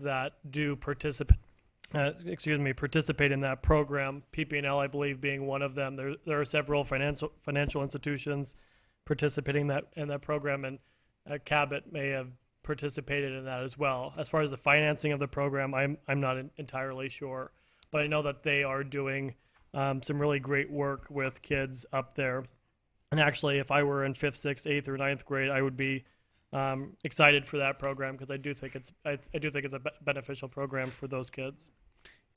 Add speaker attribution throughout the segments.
Speaker 1: that do participate, uh, excuse me, participate in that program. PPNL, I believe, being one of them. There, there are several financial financial institutions participating that in that program, and uh, Cabot may have participated in that as well. As far as the financing of the program, I'm I'm not en- entirely sure, but I know that they are doing um, some really great work with kids up there. And actually, if I were in fifth, sixth, eighth, or ninth grade, I would be um, excited for that program because I do think it's I, I do think it's a be- beneficial program for those kids.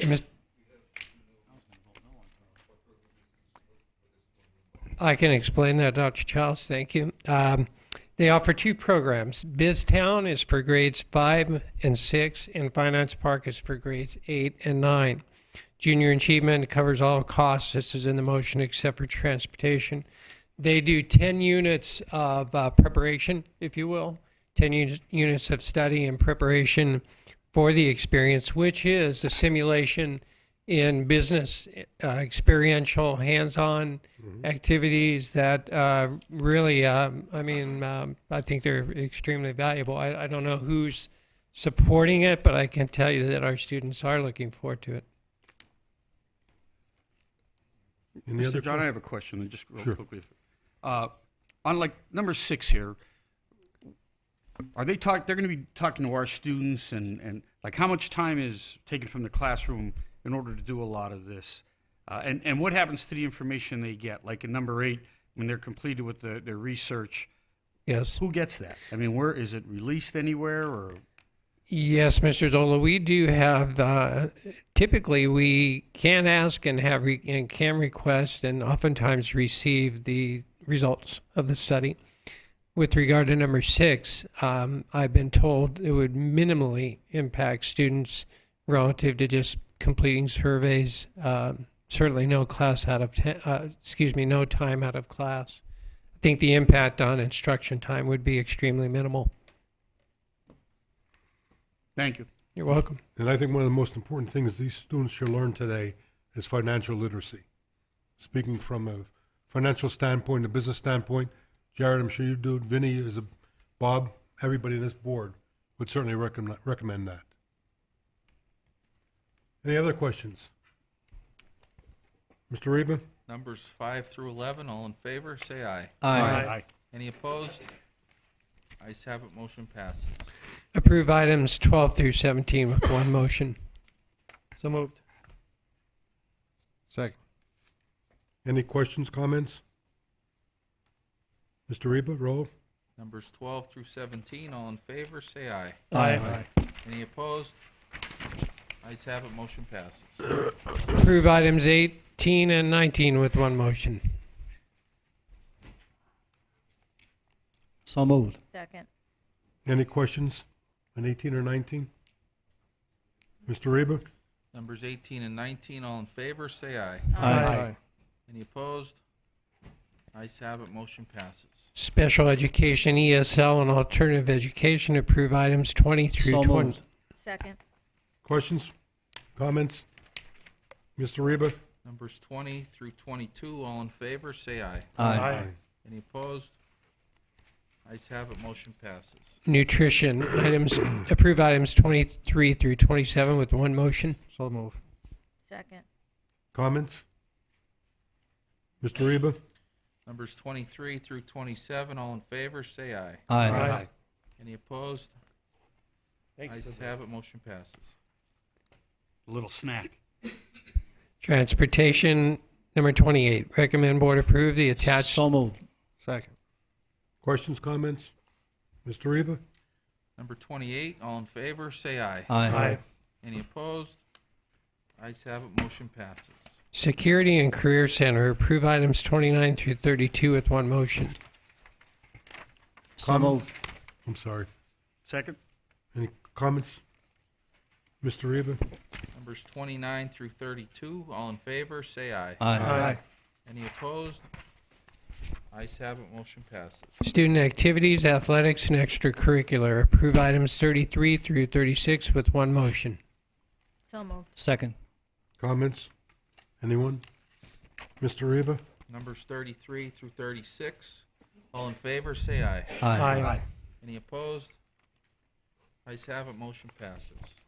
Speaker 2: Mis- I can explain that, Dr. Childs. Thank you. Um, they offer two programs. BizTown is for grades five and six, and Finance Park is for grades eight and nine. Junior Achievement covers all costs. This is in the motion except for transportation. They do 10 units of uh, preparation, if you will, 10 uni- units of study and preparation for the experience, which is a simulation in business, uh, experiential, hands on activities that uh, really, um, I mean, um, I think they're extremely valuable. I, I don't know who's supporting it, but I can tell you that our students are looking forward to it.
Speaker 3: Any other
Speaker 4: Mr. John, I
Speaker 3: questions?
Speaker 4: have a question, and just
Speaker 3: Sure.
Speaker 4: real quickly. Uh, On like number six here, are they talk, they're going to be talking to our students and, and like how much time is taken from the classroom in order to do a lot of this? Uh, And, and what happens to the information they get? Like in number eight, when they're completed with the, their research,
Speaker 2: Yes.
Speaker 4: who gets that? I mean, where, is it released anywhere or?
Speaker 2: Yes, Mr. Zola, we do have, uh, typically, we can ask and have, re- and can request and oftentimes receive the results of the study. With regard to number six, um, I've been told it would minimally impact students relative to just completing surveys. Um, Certainly no class out of, ten- uh, excuse me, no time out of class. I think the impact on instruction time would be extremely minimal.
Speaker 4: Thank you.
Speaker 2: You're welcome.
Speaker 3: And I think one of the most important things these students should learn today is financial literacy. Speaking from a financial standpoint, a business standpoint, Jared, I'm sure you do. Vinny is a Bob. Everybody in this board would certainly recommend recommend that. Any other questions, Mr. Reba?
Speaker 5: Numbers five through 11, all in favor, say aye.
Speaker 1: Aye.
Speaker 5: Any opposed? Ayes have it, motion passes.
Speaker 2: Approve items 12 through 17 with one motion.
Speaker 1: So moved.
Speaker 6: Second.
Speaker 3: Any questions, comments? Mr. Reba, roll.
Speaker 5: Numbers 12 through 17, all in favor, say aye.
Speaker 1: Aye.
Speaker 5: Any opposed? Ayes have it, motion passes.
Speaker 2: Approve items 18 and 19 with one motion.
Speaker 6: So moved.
Speaker 7: Second.
Speaker 3: Any questions on 18 or 19? Mr. Reba?
Speaker 5: Numbers 18 and 19, all in favor, say aye.
Speaker 1: Aye.
Speaker 5: Any opposed? Ayes have it, motion passes.
Speaker 2: Special education, ESL, and alternative education. Approve items 20 through
Speaker 6: So
Speaker 2: 20.
Speaker 6: moved.
Speaker 7: Second.
Speaker 3: Questions? Comments? Mr. Reba?
Speaker 5: Numbers 20 through 22, all in favor, say aye.
Speaker 6: Aye.
Speaker 5: Any opposed? Ayes have it, motion passes.
Speaker 2: Nutrition, items, approve items 23 through 27 with one motion.
Speaker 6: So moved.
Speaker 7: Second.
Speaker 3: Comments? Mr. Reba?
Speaker 5: Numbers 23 through 27, all in favor, say aye.
Speaker 1: Aye.
Speaker 5: Any opposed? Ayes have it, motion passes.
Speaker 4: A little snack.
Speaker 2: Transportation, number 28. Recommend board approve the attached.
Speaker 6: So moved. Second.
Speaker 3: Questions, comments? Mr. Reba?
Speaker 5: Number 28, all in favor, say aye.
Speaker 1: Aye.
Speaker 5: Any opposed? Ayes have it, motion passes.
Speaker 2: Security and Career Center, approve items 29 through 32 with one motion.
Speaker 6: So moved.
Speaker 3: I'm sorry.
Speaker 4: Second?
Speaker 3: Any comments? Mr. Reba?
Speaker 5: Numbers 29 through 32, all in favor, say aye.
Speaker 1: Aye.
Speaker 5: Any opposed? Ayes have it, motion passes.
Speaker 2: Student activities, athletics, and extracurricular. Approve items 33 through 36 with one motion.
Speaker 7: So moved.
Speaker 6: Second.
Speaker 3: Comments? Anyone? Mr. Reba?
Speaker 5: Numbers 33 through 36, all in favor, say aye.
Speaker 1: Aye.
Speaker 5: Any opposed? Ayes have it, motion passes.